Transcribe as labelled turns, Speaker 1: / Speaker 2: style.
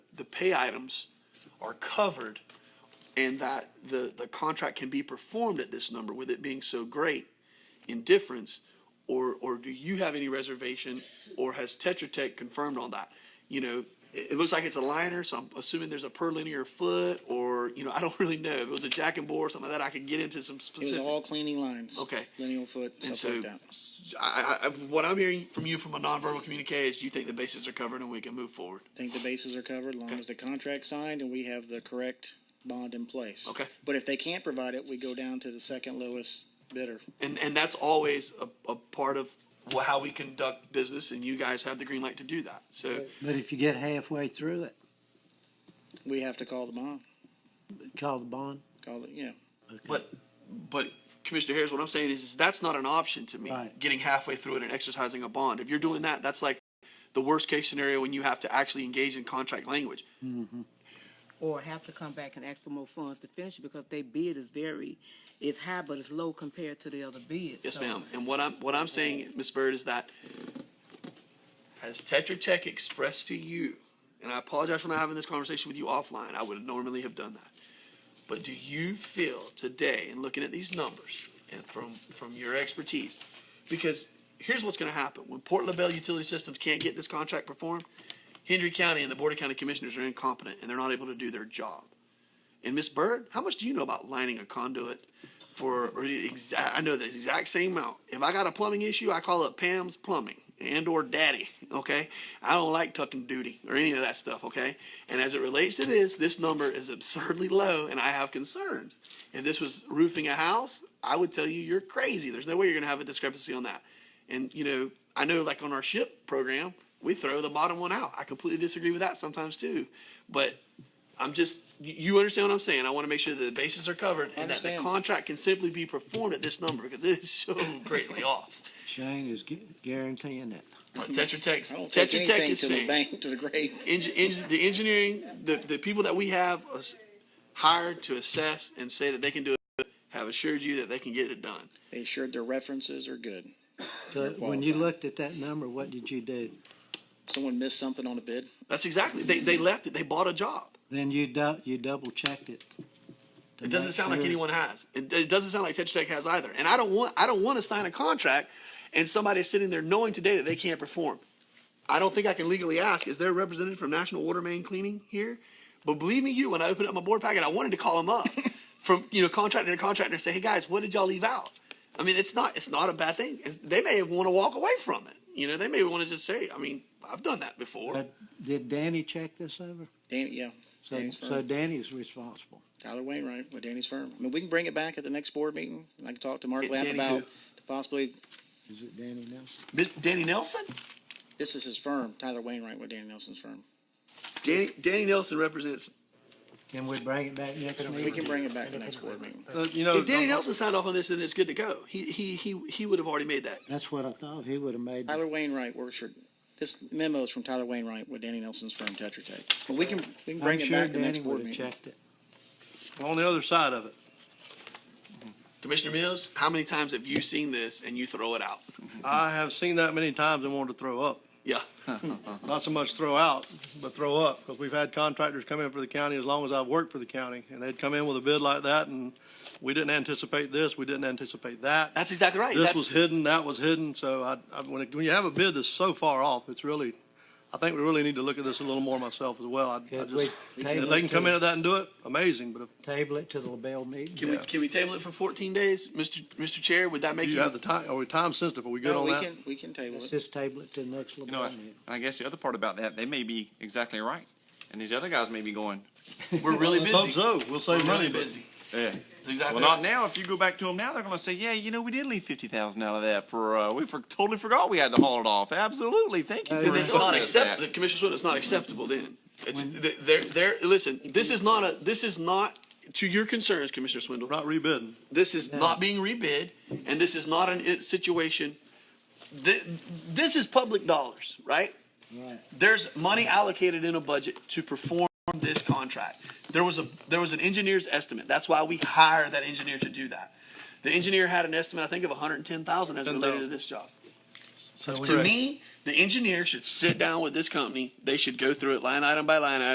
Speaker 1: pay items are covered and that the, the contract can be performed at this number with it being so great in difference? Or, or do you have any reservation or has Tetra Tech confirmed on that? You know, it, it looks like it's a liner, so I'm assuming there's a per linear foot or, you know, I don't really know. If it was a jack and bore or something like that, I could get into some
Speaker 2: It was
Speaker 1: specifics.
Speaker 2: all cleaning lines.
Speaker 1: Okay.
Speaker 2: Lineal foot,
Speaker 1: And
Speaker 2: stuff like
Speaker 1: so-
Speaker 2: that.
Speaker 1: I, I, I- what I'm hearing from you from a nonverbal communique is you think the bases are covered and we can move forward.
Speaker 2: Think the bases are covered, long as the contract's signed and we have the correct bond in place.
Speaker 1: Okay.
Speaker 2: But if they can't provide it, we go down to the second lowest bidder.
Speaker 1: And, and that's always a, a part of wh- how we conduct business, and you guys have the green light to do that. So,
Speaker 3: But if you get halfway through it,
Speaker 2: We have to call the bond,
Speaker 3: call the bond.
Speaker 2: call it, yeah.
Speaker 1: but, but Commissioner Harris, what I'm saying is, is that's not an option to me.
Speaker 3: Right.
Speaker 1: Getting halfway through it and exercising a bond. If you're doing that, that's like the worst case scenario when you have to actually engage in contract language.
Speaker 4: or have to come back and ask for more funds to finish it because their bid is very, it's high, but it's low compared to the other bids.
Speaker 1: Yes,
Speaker 4: So,
Speaker 1: ma'am. And what I'm, what I'm saying, Ms. Bird, is that as Tetra Tech expressed to you, and I apologize for not having this conversation with you offline, I would normally have done that. But do you feel today, in looking at these numbers and from, from your expertise, because here's what's gonna happen. When Port LaBelle Utility Systems can't get this contract performed, Hendry County and the Board of County Commissioners are incompetent and they're not able to do their job. And Miss Bird, how much do you know about lining a conduit for? Or the exact, I know the exact same amount. If I got a plumbing issue, I call up Pam's Plumbing and or Daddy. Okay, I don't like tucking duty or any of that stuff. Okay, and as it relates to this, this number is absurdly low, and I have concerns. If this was roofing a house, I would tell you you're crazy. There's no way you're gonna have a discrepancy on that. And you know, I know like on our ship program, we throw the bottom one out. I completely disagree with that sometimes too, but I'm just, you- you understand what I'm saying? I want to make sure that the bases are covered and that the
Speaker 2: Understand.
Speaker 1: contract can simply be performed at this number because it is so greatly off.
Speaker 3: Shane is gu- guaranteeing it.
Speaker 1: But Tetra Tech,
Speaker 2: I don't take
Speaker 1: Tetra Tech
Speaker 2: anything
Speaker 1: is
Speaker 2: to the
Speaker 1: saying,
Speaker 2: bank, to the grave.
Speaker 1: Eng- eng- the engineering, the, the people that we have as- hired to assess and say that they can do it, have assured you that they can get it done.
Speaker 2: They assured their references are good.
Speaker 3: So when you looked at that number, what did you do?
Speaker 2: Someone missed something on a bid.
Speaker 1: That's exactly, they, they left it, they bought a job.
Speaker 3: Then you dou- you double checked it. to
Speaker 1: It doesn't
Speaker 3: make
Speaker 1: sound like
Speaker 3: sure.
Speaker 1: anyone has. It, it doesn't sound like Tetra Tech has either. And I don't want I don't want to sign a contract and somebody's sitting there knowing today that they can't perform. I don't think I can legally ask, is there a representative from National Water Main Cleaning here? But believe me, you, when I opened up my board packet, I wanted to call them up from you know contractor to contractor and say, hey guys, what did y'all leave out? I mean, it's not it's not a bad thing. It's- they may want to walk away from it. You know, they may want to just say, I mean, I've done that before.
Speaker 3: But did Danny check this over?
Speaker 2: Danny, yeah.
Speaker 3: So
Speaker 2: Danny's
Speaker 3: so
Speaker 2: firm.
Speaker 3: Danny's responsible.
Speaker 2: Tyler Wainwright with Danny's firm. I mean, we can bring it back at the next board meeting. and I can talk to Mark
Speaker 1: Get
Speaker 2: Lapp
Speaker 1: Danny
Speaker 2: about
Speaker 1: who?
Speaker 2: the possibility,
Speaker 3: Is it Danny Nelson?
Speaker 1: Miss Danny Nelson?
Speaker 2: this is his firm, Tyler Wainwright with Danny Nelson's firm.
Speaker 1: Danny, Danny Nelson represents
Speaker 3: Can we bring it back next meeting?
Speaker 2: We can bring it back at the next board meeting.
Speaker 5: Uh, You know,
Speaker 1: If Danny Nelson signed off on this, then it's good to go. He he he he would have already made that.
Speaker 3: That's what I thought. He would have made.
Speaker 2: Tyler Wainwright works for, this memo is from Tyler Wainwright with Danny Nelson's firm, Tetra Tech. But we can, we can
Speaker 3: I'm
Speaker 2: bring it
Speaker 3: sure
Speaker 2: back at the
Speaker 3: Danny
Speaker 2: next
Speaker 3: would
Speaker 2: board
Speaker 3: have
Speaker 2: meeting.
Speaker 3: checked it.
Speaker 5: on the other side of it,
Speaker 1: Commissioner Mills, how many times have you seen this and you throw it out?
Speaker 5: I have seen that many times and wanted to throw up.
Speaker 1: Yeah,
Speaker 5: Not so much throw out, but throw up, because we've had contractors come in for the county as long as I've worked for the county, and they'd come in with a bid like that, and we didn't anticipate this, we didn't anticipate that.
Speaker 1: that's exactly right.
Speaker 5: This
Speaker 1: That's-
Speaker 5: was hidden, that was hidden, so I, I, when, it- when you have a bid that's so far off, it's really, I think we really need to look at this a little more myself as well. I- I
Speaker 3: Could
Speaker 5: just-
Speaker 3: we
Speaker 5: If
Speaker 3: table
Speaker 5: they
Speaker 3: it
Speaker 5: can come
Speaker 3: to-
Speaker 5: in at that and do it, amazing, but
Speaker 3: Table it to the LaBelle meeting.
Speaker 1: Can we can we table it for fourteen days, Mister Mister Chair? Would that make
Speaker 5: if
Speaker 1: you?
Speaker 5: you have the time, are we time sensitive, are we good
Speaker 2: No,
Speaker 5: on
Speaker 2: we
Speaker 5: that?
Speaker 2: can, we can table
Speaker 3: Let's
Speaker 2: it.
Speaker 3: just table it to the next
Speaker 6: You know,
Speaker 1: Mm-hmm.
Speaker 3: LaBelle
Speaker 6: and
Speaker 3: meeting.
Speaker 6: I guess the other part about that, they may be exactly right. And these other guys may be going,
Speaker 1: we're really
Speaker 5: Let's hope
Speaker 1: busy.
Speaker 5: so, we'll
Speaker 1: We're
Speaker 5: save money.
Speaker 1: really
Speaker 5: but-
Speaker 1: busy.
Speaker 6: yeah.
Speaker 1: That's exactly.
Speaker 6: "Eh." Well, not
Speaker 1: right.
Speaker 6: now. If you go back to them now, they're going to say, yeah, you know, we did leave 50000 out of that for, uh, we for, totally forgot we had to haul it off. Absolutely. Thank you.
Speaker 3: Uh,
Speaker 6: for
Speaker 1: Then
Speaker 3: We're
Speaker 1: it's
Speaker 6: informing
Speaker 1: not
Speaker 6: us that.
Speaker 1: acceptable, Commissioner Swindle. It's not acceptable. Then it's th- they're they're listen. This is not a this is not to your concerns, Commissioner Swindle.
Speaker 5: Not rebidding.
Speaker 1: This is not being rebid, and this is not an it situation. Th- This is public dollars, right?
Speaker 3: Right.
Speaker 1: There's money allocated in a budget to perform this contract. There was a, there was an engineer's estimate. That's why we hire that engineer to do that. The engineer had an estimate, I think, of hundred and ten thousand as related to
Speaker 5: 10,000.
Speaker 1: this job.
Speaker 5: That's
Speaker 1: To me, the engineer should sit down with this company. They should go through it line item by line item.